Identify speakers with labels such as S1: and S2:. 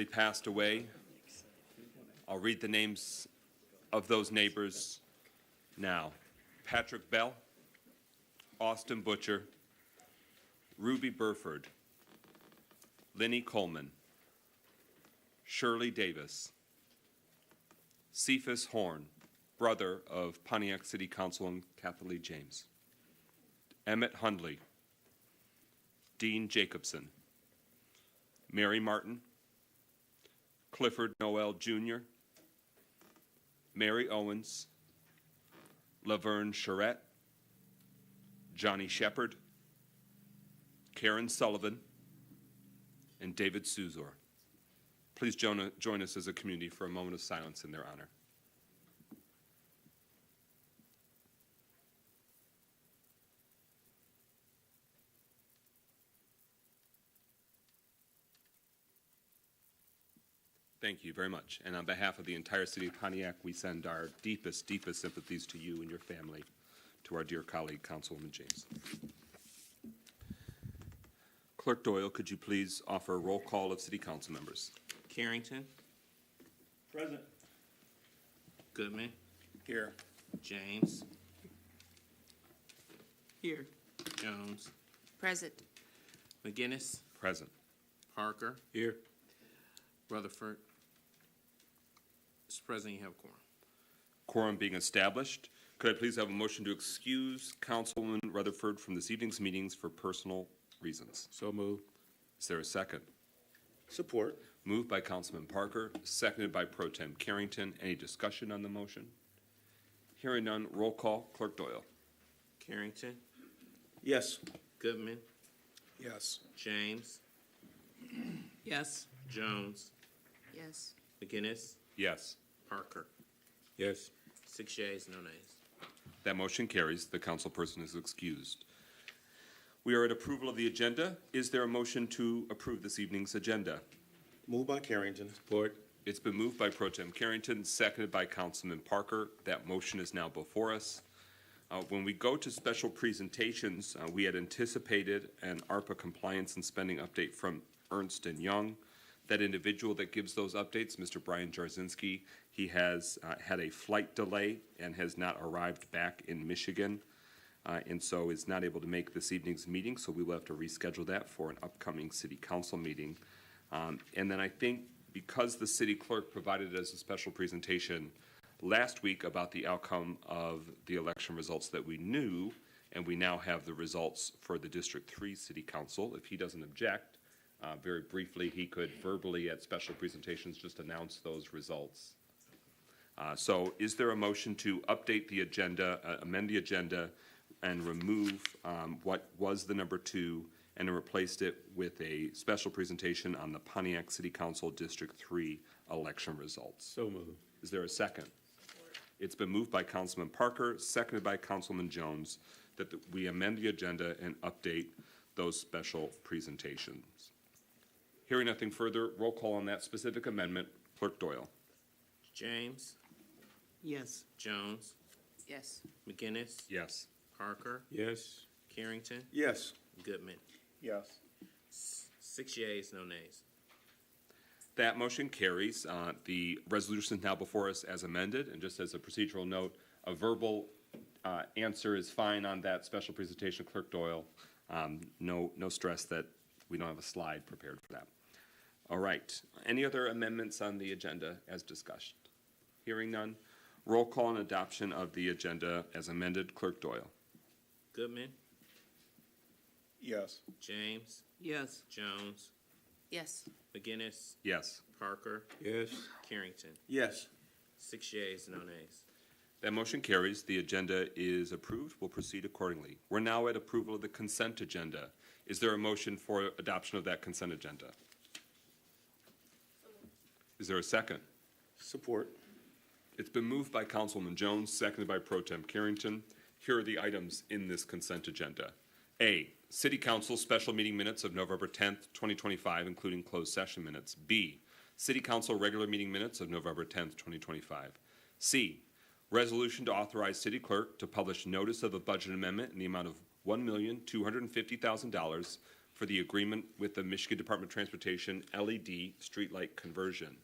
S1: They passed away. I'll read the names of those neighbors now. Patrick Bell, Austin Butcher, Ruby Burford, Lenny Coleman, Shirley Davis, Cephas Horn, brother of Pontiac City Councilman Kathleen James, Emmett Hundley, Dean Jacobson, Mary Martin, Clifford Noel Jr., Mary Owens, Laverne Charette, Johnny Shepard, Karen Sullivan, and David Suzor. Please join, uh, join us as a community for a moment of silence in their honor. Thank you very much. And on behalf of the entire city of Pontiac, we send our deepest, deepest sympathies to you and your family, to our dear colleague, Councilwoman James. Clerk Doyle, could you please offer a roll call of city council members?
S2: Carrington,
S3: Present.
S2: Goodman,
S3: Here.
S2: James,
S4: Here.
S2: Jones,
S5: Present.
S2: McGinnis,
S1: Present.
S2: Parker,
S3: Here.
S2: Rutherford. Mr. President, you have a quorum.
S1: Quorum being established, could I please have a motion to excuse Councilwoman Rutherford from this evening's meetings for personal reasons?
S3: So moved.
S1: Is there a second?
S3: Support.
S1: Moved by Councilman Parker, seconded by Pro Tem Carrington. Any discussion on the motion? Hearing none, roll call, Clerk Doyle.
S2: Carrington,
S3: Yes.
S2: Goodman,
S3: Yes.
S2: James,
S4: Yes.
S2: Jones,
S5: Yes.
S2: McGinnis,
S1: Yes,
S2: Parker.
S3: Yes.
S2: Six yeas, no nays.
S1: that motion carries. The councilperson is excused. We are at approval of the agenda. Is there a motion to approve this evening's agenda?
S6: Moved by Carrington.
S3: Support.
S1: It's been moved by Pro Tem Carrington, seconded by Councilman Parker. That motion is now before us. Uh, When we go to special presentations, uh, we had anticipated an ARPA compliance and spending update from Ernst and Young. That individual that gives those updates, Mr. Brian Jarzinski, he has uh, had a flight delay and has not arrived back in Michigan, uh, and so is not able to make this evening's meeting, so we will have to reschedule that for an upcoming city council meeting. Um, And then I think because the city clerk provided us a special presentation last week about the outcome of the election results that we knew, and we now have the results for the District Three City Council, if he doesn't object, uh, very briefly, he could verbally at special presentations just announce those results. Uh, So is there a motion to update the agenda, uh, amend the agenda, and remove um, what was the number two and replaced it with a special presentation on the Pontiac City Council District Three election results?
S3: So moved.
S1: Is there a second? It's been moved by Councilman Parker, seconded by Councilman Jones, that the- we amend the agenda and update those special presentations. Hearing nothing further, roll call on that specific amendment. Clerk Doyle.
S2: James,
S4: Yes.
S2: Jones,
S5: Yes.
S2: McGinnis,
S1: Yes.
S2: Parker,
S3: Yes.
S2: Carrington,
S6: Yes.
S2: Goodman.
S6: Yes.
S2: Six yeas, no nays.
S1: That motion carries. Uh, The resolution is now before us as amended, and just as a procedural note, a verbal uh, answer is fine on that special presentation, Clerk Doyle. Um, No, no stress that we don't have a slide prepared for that. All right. Any other amendments on the agenda as discussed? Hearing none. Roll call and adoption of the agenda as amended, Clerk Doyle.
S2: Goodman,
S6: Yes.
S2: James,
S4: Yes.
S2: Jones,
S5: Yes.
S2: McGinnis,
S1: Yes.
S2: Parker,
S3: Yes.
S2: Carrington.
S6: Yes.
S2: Six yeas, no nays.
S1: That motion carries. The agenda is approved. We'll proceed accordingly. We're now at approval of the consent agenda. Is there a motion for adoption of that consent agenda? Is there a second?
S6: Support.
S1: It's been moved by Councilman Jones, seconded by Pro Tem Carrington. Here are the items in this consent agenda. A, City Council Special Meeting Minutes of November tenth, twenty twenty-five, including closed session minutes. B, City Council Regular Meeting Minutes of November tenth, twenty twenty-five. C, Resolution to authorize City Clerk to publish notice of a budget amendment in the amount of one million, two hundred and fifty thousand dollars for the agreement with the Michigan Department of Transportation LED E streetlight conversion.